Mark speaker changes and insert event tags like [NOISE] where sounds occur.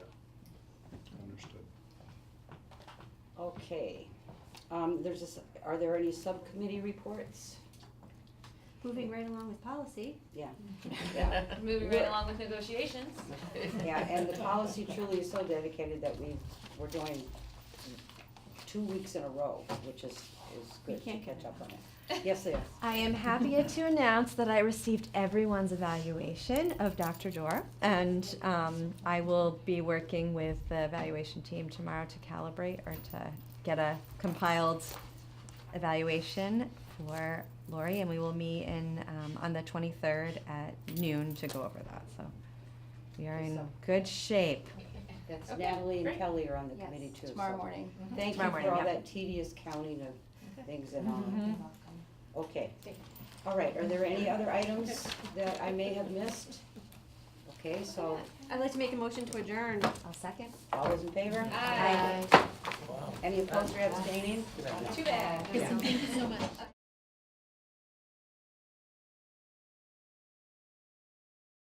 Speaker 1: Okay, um, there's a, s- are there any subcommittee reports?
Speaker 2: Moving right along with policy.
Speaker 1: Yeah,
Speaker 3: Moving
Speaker 1: Yeah.
Speaker 3: right along with negotiations.
Speaker 1: yeah, and the [LAUGHS] policy truly is so dedicated that we, we're doing two weeks in a row, which is, is
Speaker 2: We
Speaker 1: good to
Speaker 2: can't
Speaker 1: catch up
Speaker 2: [LAUGHS]
Speaker 1: on it. Yes, yes,
Speaker 4: I am happy [LAUGHS] to announce that I received everyone's evaluation of Dr. Dora, and um, I will be working with the evaluation team tomorrow to calibrate or to get a compiled evaluation for Lori, and we will meet in um, on the 23rd at noon to go over that. So we are in good shape.
Speaker 1: that's
Speaker 3: Okay,
Speaker 1: Natalie and
Speaker 3: great.
Speaker 1: Kelly are on the
Speaker 2: Yes,
Speaker 1: committee too. so
Speaker 2: Tomorrow morning.
Speaker 1: Thank you
Speaker 4: Tomorrow
Speaker 1: for
Speaker 4: morning,
Speaker 1: all
Speaker 4: yeah.
Speaker 1: that tedious counting of things and all that. Okay.
Speaker 3: Thank
Speaker 1: All right, are there any other items that I may have missed? Okay, so,
Speaker 2: I'd like to make a motion to adjourn.
Speaker 4: I'll second.
Speaker 1: all those in favor?
Speaker 3: Aye.
Speaker 1: Any opposed or abstaining?
Speaker 3: Too bad.
Speaker 1: Yeah.
Speaker 3: Thank you so much.